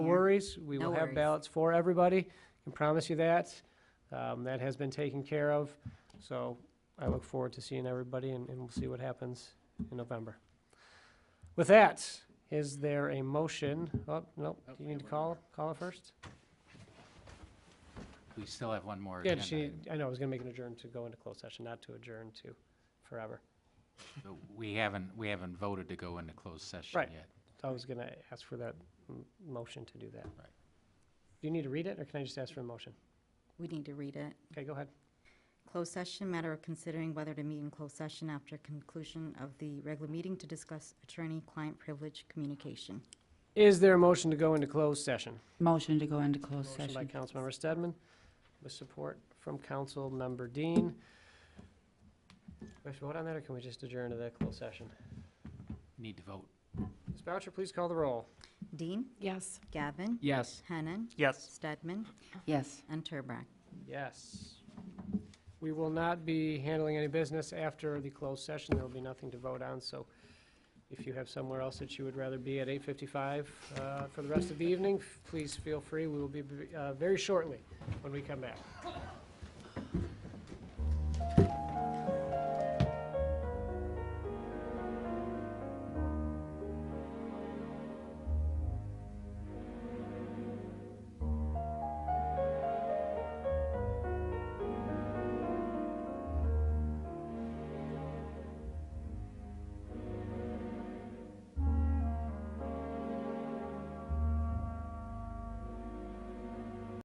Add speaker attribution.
Speaker 1: No worries, we will
Speaker 2: No
Speaker 1: have
Speaker 2: worries.
Speaker 1: ballots for everybody, can promise you that. Um, That has been taken care of, so I look forward to seeing everybody, and and we'll see what happens in November. With that, is there a motion? Oh, no, do you need to call, call it first?
Speaker 3: We still have one more
Speaker 1: Yeah,
Speaker 3: agenda.
Speaker 1: she,
Speaker 3: item.
Speaker 1: I know, I was gonna make an adjourn to go into closed session, not to adjourn to forever.
Speaker 3: So We haven't, we haven't voted to go into closed session
Speaker 1: Right.
Speaker 3: yet.
Speaker 1: I was gonna ask for that m- motion to do that.
Speaker 3: Right.
Speaker 1: Do you need to read it, or can I just ask for a motion?
Speaker 2: We need to read it.
Speaker 1: Okay, go ahead.
Speaker 2: Closed session, matter of considering whether to meet in closed session after conclusion of the regular meeting to discuss attorney-client privilege communication.
Speaker 1: Is there a motion to go into closed session?
Speaker 4: Motion to go into closed
Speaker 1: Motion by
Speaker 4: session.
Speaker 1: Councilmember Stedman, with support from Councilmember Dean. We should vote on that, or can we just adjourn to the closed session?
Speaker 3: Need to vote.
Speaker 1: Ms. Boucher, please call the roll.
Speaker 2: Dean?
Speaker 4: Yes.
Speaker 2: Gavin?
Speaker 3: Yes.
Speaker 2: Hennan?
Speaker 1: Yes.
Speaker 2: Stedman?
Speaker 4: Yes.
Speaker 2: And Turbrack.
Speaker 1: Yes. We will not be handling any business after the closed session. There will be nothing to vote on, so if you have somewhere else that you would rather be at 8:55 uh, for the rest of the evening, please feel free. We will be uh, very shortly when we come back.